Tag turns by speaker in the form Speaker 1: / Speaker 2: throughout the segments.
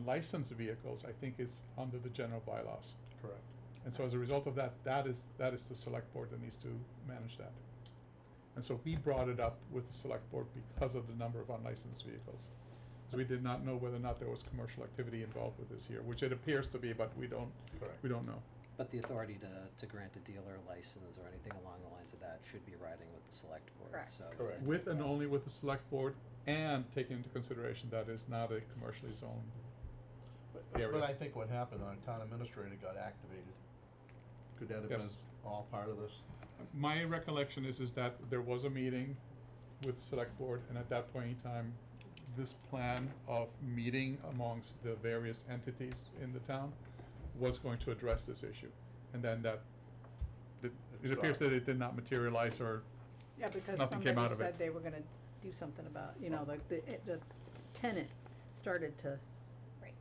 Speaker 1: unlicensed vehicles, I think is under the general bylaws.
Speaker 2: Correct.
Speaker 1: And so as a result of that, that is, that is the select board that needs to manage that. And so we brought it up with the select board because of the number of unlicensed vehicles. So we did not know whether or not there was commercial activity involved with this here, which it appears to be, but we don't,
Speaker 2: Correct.
Speaker 1: we don't know.
Speaker 3: But the authority to, to grant a dealer license or anything along the lines of that should be riding with the select board,
Speaker 4: Correct.
Speaker 3: so.
Speaker 2: Correct.
Speaker 1: With and only with the select board and taking into consideration that is not a commercially zoned.
Speaker 2: But,
Speaker 1: Area.
Speaker 2: but I think what happened, our town administrator got activated. Could that have been
Speaker 1: Yes.
Speaker 2: all part of this?
Speaker 1: My recollection is, is that there was a meeting with the select board, and at that point in time, this plan of meeting amongst the various entities in the town was going to address this issue. And then that, that- it appears that it did not materialize or,
Speaker 4: Yeah, because
Speaker 1: Nothing came out
Speaker 4: somebody
Speaker 1: of it.
Speaker 4: said they were gonna do something about, you know, the, the, it- the tenant started to
Speaker 5: Right.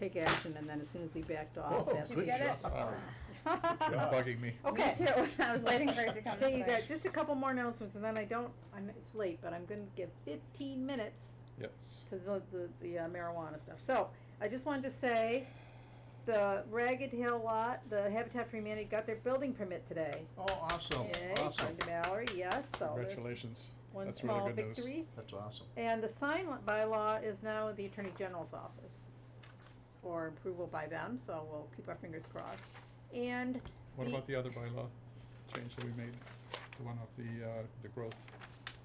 Speaker 4: take action, and then as soon as he backed off,
Speaker 2: Oh,
Speaker 4: that's.
Speaker 5: Did you
Speaker 2: good
Speaker 5: get it?
Speaker 2: job.
Speaker 1: it's
Speaker 2: Yeah.
Speaker 1: bugging me.
Speaker 5: Okay. Me too. I was waiting for it to come.
Speaker 4: Okay, you
Speaker 5: but-
Speaker 4: got just a couple more announcements, and then I don't, I'm, it's late, but I'm gonna give fifteen minutes
Speaker 1: Yes.
Speaker 4: to the, the, the uh, marijuana stuff. So, I just wanted to say, the Ragged Hill lot, the Habitat for Humanity got their building permit today.
Speaker 2: Oh, awesome,
Speaker 4: Yay,
Speaker 2: awesome.
Speaker 4: according to Mallory, yes, so there's
Speaker 1: Congratulations.
Speaker 4: one
Speaker 1: That's really
Speaker 4: small
Speaker 1: good news.
Speaker 4: victory.
Speaker 2: That's awesome.
Speaker 4: And the sign li- bylaw is now in the Attorney General's office for approval by them, so we'll keep our fingers crossed. And
Speaker 1: What
Speaker 4: the-
Speaker 1: about the other bylaw change that we made, the one of the, uh, the growth?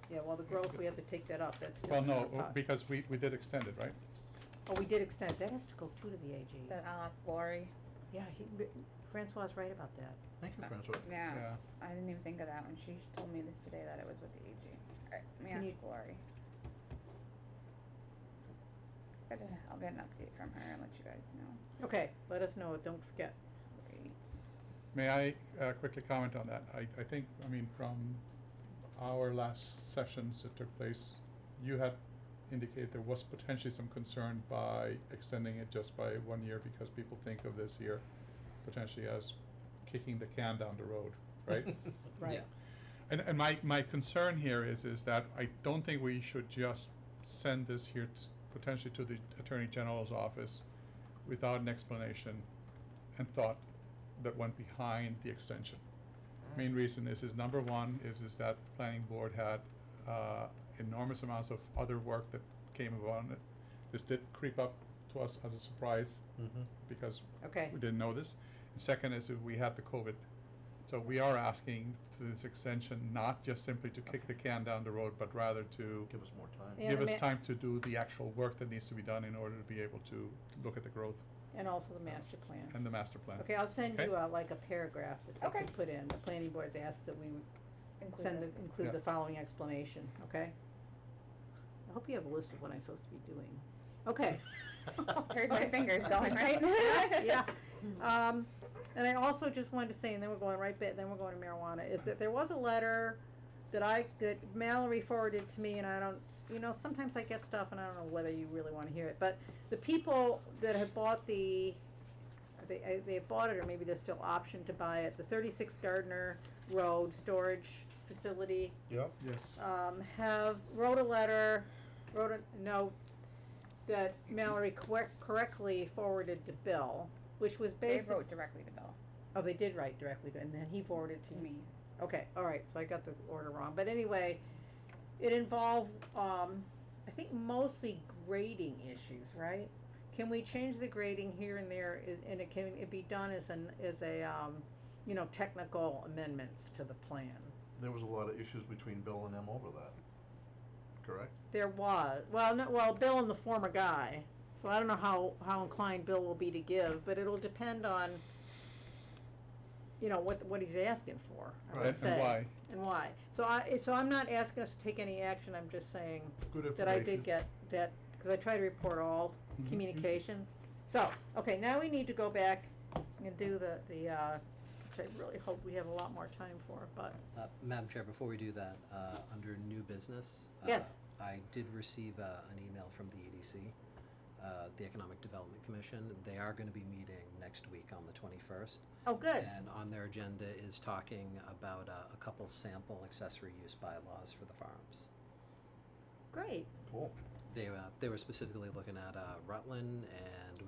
Speaker 4: Yeah, well, the growth, we have to take that up, that's.
Speaker 1: Well,
Speaker 4: different
Speaker 1: no,
Speaker 4: than our
Speaker 1: uh, because we, we did extend it, right?
Speaker 4: po- Oh, we did extend, it. that has to go too to the AG.
Speaker 5: Then I'll ask Lori.
Speaker 4: Yeah, he, but Francois is right about that.
Speaker 2: Thank you, Francois.
Speaker 5: Yeah.
Speaker 1: Yeah.
Speaker 5: I didn't even think of that one. She told me this today that it was with the E AG. Alright, let me
Speaker 4: Can you-
Speaker 5: ask Lori. But, uh, I'll get an update from her and let you guys know.
Speaker 4: Okay, let us know, don't forget.
Speaker 5: Great.
Speaker 1: May I uh, quickly comment on that? I, I think, I mean, from our last sessions that took place, you had indicated there was potentially some concern by extending it just by one year because people think of this year potentially as kicking the can down the road, right?
Speaker 4: Right.
Speaker 1: And, and my, my concern here is, is that I don't think we should just send this here t potentially to the Attorney General's office without an explanation and thought that went behind the extension. Main reason is, is number one, is, is that the planning board had, uh, enormous amounts of other work that came about. and it- This did creep up to us as a surprise
Speaker 2: Mm-hmm.
Speaker 1: because
Speaker 4: Okay,
Speaker 1: we didn't know this. And second is that we had the COVID. So we are asking for this extension, not just simply to kick the can down the road, but rather to
Speaker 2: Give us more time.
Speaker 4: Yeah.
Speaker 1: give
Speaker 4: the
Speaker 1: us
Speaker 4: ma-
Speaker 1: time to do the actual work that needs to be done in order to be able to look at the growth
Speaker 4: and also the master plan.
Speaker 1: and the master plan.
Speaker 4: Okay, I'll send
Speaker 1: Okay.
Speaker 4: you uh, like a paragraph that they
Speaker 5: Okay.
Speaker 4: can put in. The planning board's asked that we would
Speaker 5: Include
Speaker 4: send,
Speaker 5: this.
Speaker 4: the- include
Speaker 1: Yeah.
Speaker 4: the following explanation, okay? I hope you have a list of what I'm supposed to be doing. Okay.
Speaker 5: Heard my fingers going, right?
Speaker 4: Yeah. Um, and I also just wanted to say, and then we're going right back, then we're going to marijuana, is that there was a letter that I, that Mallory forwarded to me, and I don't, you know, sometimes I get stuff and I don't know whether you really wanna hear it, but the people that have bought the, they, uh, they have bought it, or maybe they're still optioned to buy it, the thirty-six Gardner Road Storage Facility,
Speaker 2: Yep.
Speaker 1: Yes.
Speaker 4: um, have, wrote a letter, wrote a note that Mallory correc- correctly forwarded to Bill, which was
Speaker 5: They
Speaker 4: basically,
Speaker 5: wrote directly to Bill,
Speaker 4: oh, they did write directly to, and then he forwarded
Speaker 5: to
Speaker 4: to me.
Speaker 5: me.
Speaker 4: Okay, all right, so I got the order wrong, but anyway, it involved, um, I think mostly grading issues, right? Can we change the grading here and there, is, and it can, it be done as an, as a, um, you know, technical amendments to the plan?
Speaker 2: There was a lot of issues between Bill and them over that, correct?
Speaker 4: There was, well, no, well, Bill and the former guy, so I don't know how, how inclined Bill will be to give, but it'll depend on, you know, what, what he's asking for, I
Speaker 1: And
Speaker 4: would
Speaker 2: Right.
Speaker 4: say.
Speaker 1: and why?
Speaker 4: And why? So I, so I'm not asking us to take any action, I'm just saying
Speaker 2: Good information.
Speaker 4: that I did get that, because I try to report all
Speaker 1: Mhm.
Speaker 4: communications. So, okay, now we need to go back and do the, the, uh, which I really hope we have a lot more time for, but,
Speaker 3: Uh, Madam Chair, before we do that, uh, under new business. uh,
Speaker 4: Yes.
Speaker 3: I did receive, uh, an email from the EDC, uh, the Economic Development Commission. They are gonna be meeting next week on the twenty-first.
Speaker 4: oh, good,
Speaker 3: And on their agenda is talking about, uh, a couple sample accessory use bylaws for the farms.
Speaker 4: great.
Speaker 2: Cool.
Speaker 3: They, uh, they were specifically looking at, uh, Rutland and